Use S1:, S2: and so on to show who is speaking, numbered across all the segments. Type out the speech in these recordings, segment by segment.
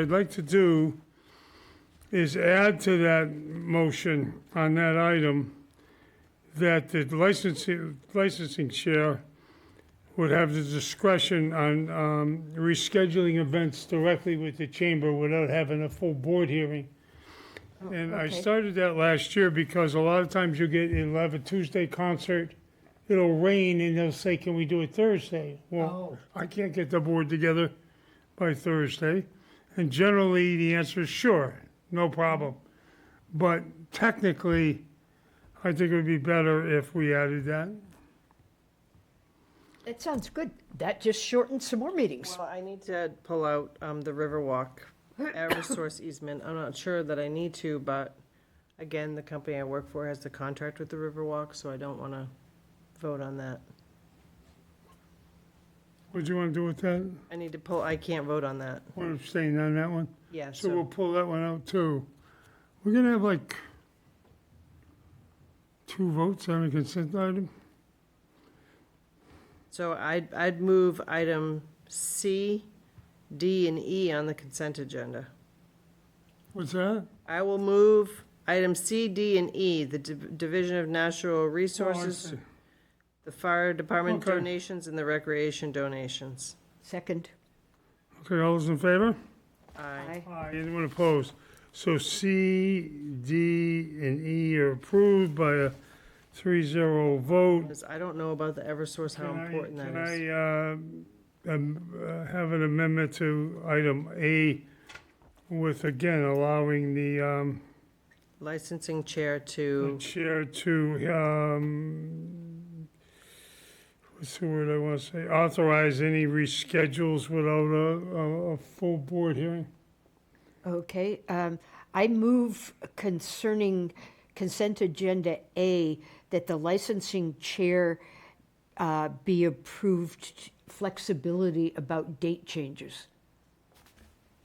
S1: I'd like to do is add to that motion on that item that the licensing, licensing chair would have the discretion on um, rescheduling events directly with the chamber without having a full board hearing. And I
S2: okay.
S1: started that last year because a lot of times you get, you'll have a Tuesday concert, it'll rain, and they'll say, can we do it Thursday?
S2: Oh.
S1: Well, I can't get the board together by Thursday. And generally, the answer is sure, no problem. But technically, I think it would be better if we added that.
S2: That sounds good. That just shortens some more meetings.
S3: Well, I need to pull out um, the Riverwalk Eversource easement. I'm not sure that I need to, but again, the company I work for has the contract with the Riverwalk, so I don't want to vote on that.
S1: What do you want to do with that?
S3: I need to pull, I can't vote on that.
S1: Want to abstain on that one?
S3: Yeah,
S1: So we'll
S3: so
S1: pull that one out too. We're gonna have like two votes on a consent item?
S3: so I'd, I'd move item C, D, and E on the consent agenda.
S1: What's that?
S3: I will move item C, D, and E, the Div- Division of Natural Resources,
S1: Oh, see.
S3: the Fire Department
S1: Okay.
S3: donations, and the Recreation donations.
S2: Second.
S1: Okay, all those in favor?
S3: Aye.
S1: Aye. Anyone opposed? So C, D, and E are approved by a three-zero vote.
S3: Because I don't know about the Eversource, how
S1: Can I-
S3: important that is.
S1: Can I um, am- uh, have an amendment to item A with, again, allowing the um,
S3: Licensing chair
S1: the
S3: to,
S1: chair to, um, what's the word I want to say, authorize any reschedules without a- a, a full board hearing?
S2: Okay, um, I move concerning consent agenda A, that the licensing chair uh, be approved flexibility about date changes.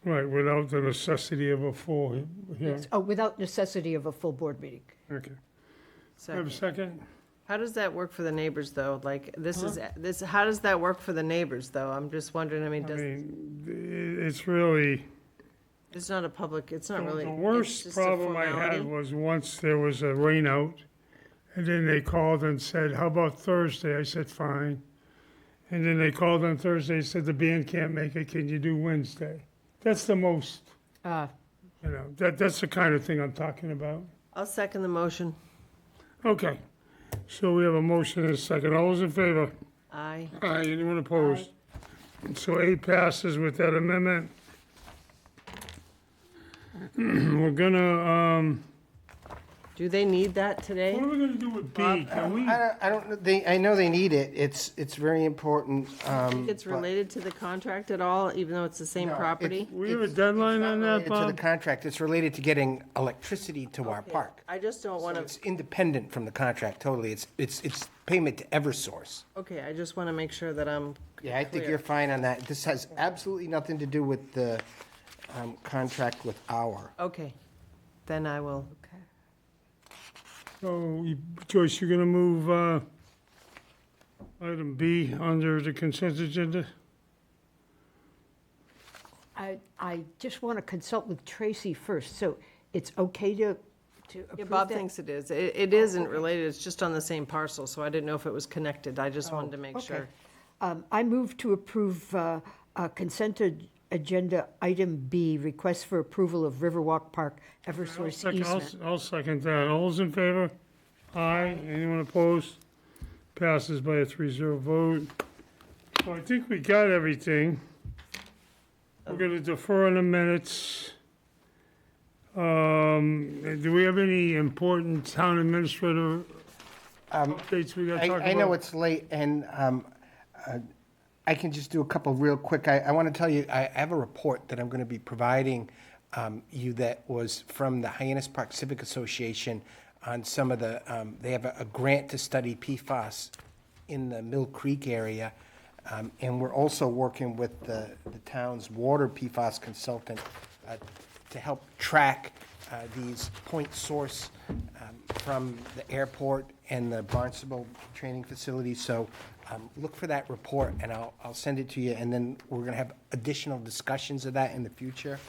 S1: Right, without the necessity of a full he- hearing.
S2: Oh, without necessity of a full board meeting.
S1: Okay. Have a
S3: Second.
S1: second?
S3: how does that work for the neighbors, though? Like, this is, this, how does that work for the neighbors, though? I'm just wondering, I mean,
S1: I
S3: does,
S1: mean, i- it's really.
S3: it's not a public, it's not
S1: The-
S3: really.
S1: The
S3: it's
S1: worst
S3: just a
S1: problem I had
S3: formality.
S1: was once there was a rain out, and then they called and said, how about Thursday? I said, fine. And then they called on Thursday, and said, the band can't make it, can you do Wednesday? That's the most,
S2: Uh,
S1: you know, that, that's the kind of thing I'm talking about.
S3: I'll second the motion.
S1: Okay, so we have a motion and a second. All those in favor?
S3: Aye.
S1: Aye, anyone opposed? So A passes with that amendment. We're gonna, um,
S3: Do they need that today?
S1: what are we gonna do with B? Can we?
S4: I don't, I don't, know- they, I know they need it, it's, it's very important, um.
S3: It's
S4: but
S3: related to the contract at all, even though it's the same
S4: No, it-
S3: property?
S1: We have a
S4: It's- it's
S1: deadline on that,
S4: related To the
S1: Bob?
S4: contract, it's related to getting electricity to our park.
S3: I just don't want to,
S4: It's independent from the contract totally, it's, it's, it's payment to Eversource.
S3: okay, I just want to make sure that I'm,
S4: Yeah, I think
S3: Clear.
S4: you're fine on that, this has absolutely nothing to do with the, um, contract with our.
S3: okay. Then I will,
S1: So, you- Joyce, you're gonna move, uh, item B under the consent agenda?
S2: I, I just want to consult with Tracy first, so it's okay to, to
S3: Yeah,
S2: approve
S3: Bob
S2: that? Oh,
S3: thinks it is. It, it isn't related, it's just on the same parcel, so I didn't know if it was connected. I just wanted to make
S2: Oh, Okay.
S3: sure.
S2: Um, I move to approve uh, uh, consent ag- agenda item B, request for approval of Riverwalk Park Eversource
S1: Second- I'll
S2: easement.
S1: s- I'll second that. All those in favor? Aye. Anyone opposed? Passes by a three-zero vote. So I think we got everything. We're gonna defer on the minutes. Um, do we have any important town administrator updates we gotta
S4: Um, I,
S1: talk about?
S4: I know it's late, and um, uh, I can just do a couple real quick. I, I want to tell you, I, I have a report that I'm going to be providing um, you that was from the Hyannis Park Civic Association on some of the, um, they have a, a grant to study PFAS in the Mill Creek area. Um, and we're also working with the, the town's water PFAS consultant uh, to help track uh, these point source um, from the airport and the Barnstable training facility. So um, look for that report, and I'll, I'll send it to you, and then we're going to have additional discussions of that in the future.